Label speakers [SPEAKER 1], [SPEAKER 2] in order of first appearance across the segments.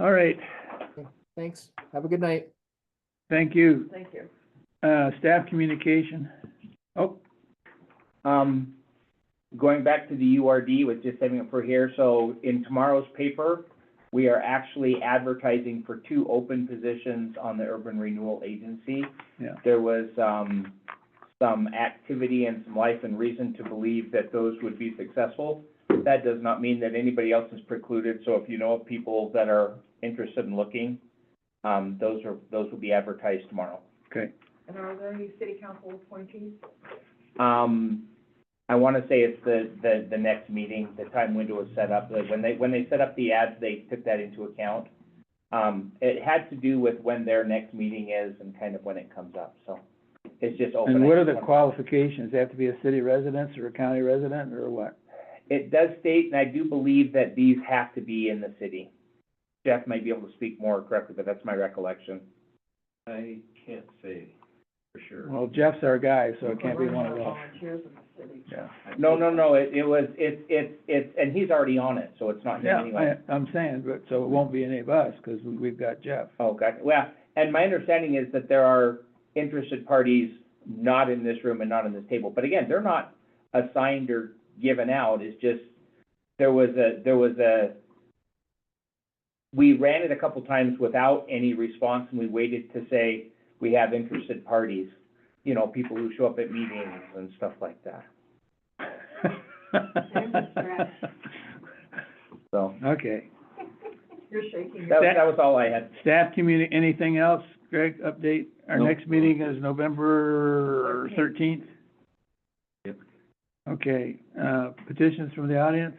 [SPEAKER 1] All right,
[SPEAKER 2] Thanks. Have a good night.
[SPEAKER 1] thank you.
[SPEAKER 3] Thank you.
[SPEAKER 1] Uh, staff communication.
[SPEAKER 4] Oh, um, going back to the URD with just saving it for here, so in tomorrow's paper, we are actually advertising for two open positions on the Urban Renewal Agency.
[SPEAKER 1] Yeah.
[SPEAKER 4] There was, um, some activity and some life and reason to believe that those would be successful. That does not mean that anybody else is precluded, so if you know of people that are interested in looking, um, those are, those will be advertised tomorrow.
[SPEAKER 3] And are there any city council appointees?
[SPEAKER 4] Um, I want to say it's the, the, the next meeting, the time window is set up. Like, When they, when they set up the ads, they took that into account. Um, it had to do with when their next meeting is and kind of when it comes up, so it's just open.
[SPEAKER 1] And what are the qualifications? They have to be a city resident or a county resident or what?
[SPEAKER 4] It does state, and I do believe that these have to be in the city. Jeff might be able to speak more correctly, but that's my recollection.
[SPEAKER 5] I can't say for sure.
[SPEAKER 1] Well, Jeff's our guy, so it can't be
[SPEAKER 3] Or
[SPEAKER 1] one of
[SPEAKER 3] are there
[SPEAKER 1] those.
[SPEAKER 3] Volunteers in the city.
[SPEAKER 1] Yeah,
[SPEAKER 4] No, no, no, it, it was, it's, it's, it's, and he's already on it, so it's not him
[SPEAKER 1] yeah,
[SPEAKER 4] anyway.
[SPEAKER 1] I, I'm saying, but, so it won't be any of us, because we've got Jeff.
[SPEAKER 4] Oh, gotcha. Well, and my understanding is that there are interested parties not in this room and not in this table. But again, they're not assigned or given out. It's just, there was a, there was a, we ran it a couple times without any response and we waited to say, we have interested parties. You know, people who show up at meetings and stuff like that. So
[SPEAKER 1] Okay,
[SPEAKER 3] You're shaking
[SPEAKER 4] that,
[SPEAKER 3] your,
[SPEAKER 4] that was all I had.
[SPEAKER 1] staff communi, anything else, Greg, update? Our
[SPEAKER 5] Nope.
[SPEAKER 1] next meeting is November thirteenth?
[SPEAKER 5] Yep.
[SPEAKER 1] Okay, uh, petitions from the audience?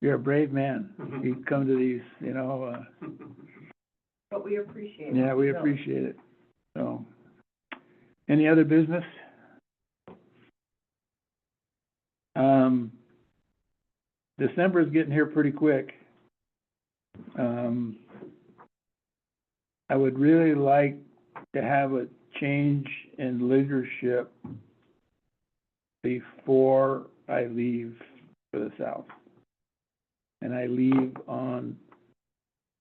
[SPEAKER 1] You're a brave man.
[SPEAKER 5] Mm-hmm.
[SPEAKER 1] You come to these, you know, uh,
[SPEAKER 3] but we appreciate it.
[SPEAKER 1] Yeah, we
[SPEAKER 3] So,
[SPEAKER 1] appreciate it. So, any other business? Um, December's getting here pretty quick. Um, I would really like to have a change in leadership before I leave for the South. And I leave on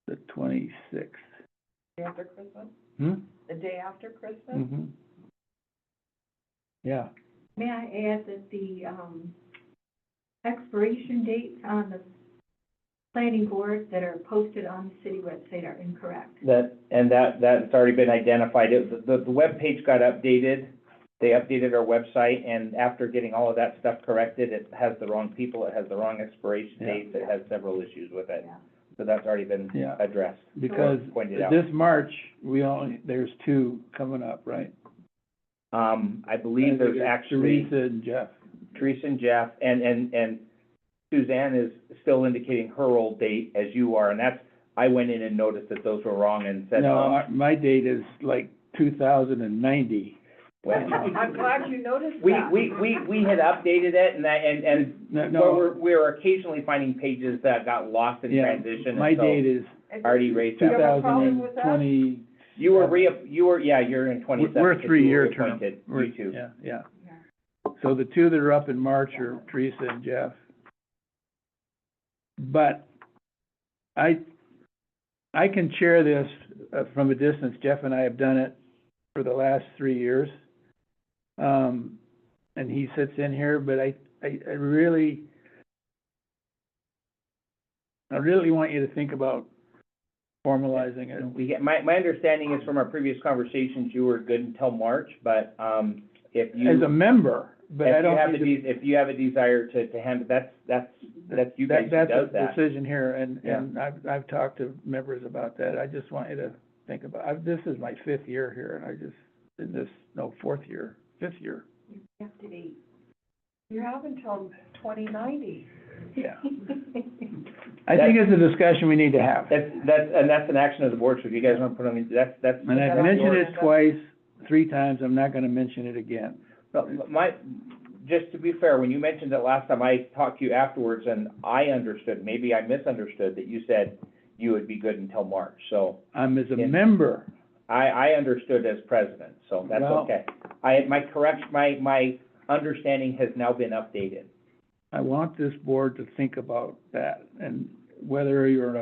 [SPEAKER 1] the twenty-sixth.
[SPEAKER 3] Day After Christmas,
[SPEAKER 1] Hmm?
[SPEAKER 3] the day after Christmas?
[SPEAKER 1] Mhm. Yeah,
[SPEAKER 6] May I add that the um, expiration dates on the planning board that are posted on the city website are incorrect.
[SPEAKER 4] That, and that, that's already been identified. It, the, the webpage got updated. They updated our website and after getting all of that stuff corrected, it has the wrong people, it has the wrong expiration
[SPEAKER 1] Yeah.
[SPEAKER 4] dates, it has several issues with it.
[SPEAKER 6] Yeah.
[SPEAKER 4] So that's already been
[SPEAKER 1] Yeah.
[SPEAKER 4] addressed,
[SPEAKER 1] because
[SPEAKER 4] pointed out.
[SPEAKER 1] this March, we only, there's two coming up, right?
[SPEAKER 4] Um, I believe there's actually
[SPEAKER 1] Teresa and Jeff.
[SPEAKER 4] Teresa and Jeff and, and, and Suzanne is still indicating her old date as you are. And that's, I went in and noticed that those were wrong and said,
[SPEAKER 1] No,
[SPEAKER 4] um,
[SPEAKER 1] our- my date is like two thousand and ninety.
[SPEAKER 4] well,
[SPEAKER 3] I'm glad you noticed
[SPEAKER 4] we,
[SPEAKER 3] that.
[SPEAKER 4] we, we, we had updated it and that, and, and
[SPEAKER 1] No,
[SPEAKER 4] Well,
[SPEAKER 1] no,
[SPEAKER 4] we're, we're occasionally finding pages that got lost in
[SPEAKER 1] Yeah,
[SPEAKER 4] transition,
[SPEAKER 1] my
[SPEAKER 4] and
[SPEAKER 1] date
[SPEAKER 4] so
[SPEAKER 1] is
[SPEAKER 3] It's-
[SPEAKER 4] already raised
[SPEAKER 1] two
[SPEAKER 3] You
[SPEAKER 4] that.
[SPEAKER 3] have
[SPEAKER 1] thousand
[SPEAKER 3] a problem
[SPEAKER 1] and
[SPEAKER 3] with that?
[SPEAKER 1] twenty.
[SPEAKER 4] You were re, you were, yeah, you're in twenty-seven.
[SPEAKER 1] We're a
[SPEAKER 4] because you
[SPEAKER 1] three-year term.
[SPEAKER 4] reappointed,
[SPEAKER 1] We're-
[SPEAKER 4] You two.
[SPEAKER 1] Yeah, yeah.
[SPEAKER 6] Yeah.
[SPEAKER 1] So the two that are up in March are Teresa and Jeff. But I, I can chair this uh, from a distance. Jeff and I have done it for the last three years. Um, and he sits in here, but I, I, I really, I really want you to think about formalizing it.
[SPEAKER 4] We get, my, my understanding is from our previous conversations, you were good until March, but, um, if you,
[SPEAKER 1] As a member, but I
[SPEAKER 4] if you
[SPEAKER 1] don't
[SPEAKER 4] have
[SPEAKER 1] need
[SPEAKER 4] a,
[SPEAKER 1] to
[SPEAKER 4] de- if you have a desire to, to handle, that's, that's, that's you guys
[SPEAKER 1] That,
[SPEAKER 4] who
[SPEAKER 1] that's
[SPEAKER 4] does
[SPEAKER 1] a
[SPEAKER 4] that.
[SPEAKER 1] decision here, and,
[SPEAKER 4] Yeah.
[SPEAKER 1] and I've, I've talked to members about that, I just want you to think about, I've, this is my fifth year here, and I just, in this, no, fourth year, fifth year,
[SPEAKER 6] You have to be.
[SPEAKER 3] You have until twenty ninety.
[SPEAKER 1] yeah. I think it's a discussion we need to have,
[SPEAKER 4] That's, that's, and that's an action of the board, so if you guys wanna put on, that's, that's.
[SPEAKER 1] and I've mentioned it twice, three times, I'm not gonna mention it again.
[SPEAKER 4] No, my, just to be fair, when you mentioned it last time, I talked to you afterwards, and I understood, maybe I misunderstood, that you said you would be good until March, so
[SPEAKER 1] I'm as a
[SPEAKER 4] Yeah.
[SPEAKER 1] member,
[SPEAKER 4] I, I understood as president, so that's
[SPEAKER 1] Well-
[SPEAKER 4] okay. I, my correct, my, my understanding has now been updated.
[SPEAKER 1] I want this board to think about that, and whether you're a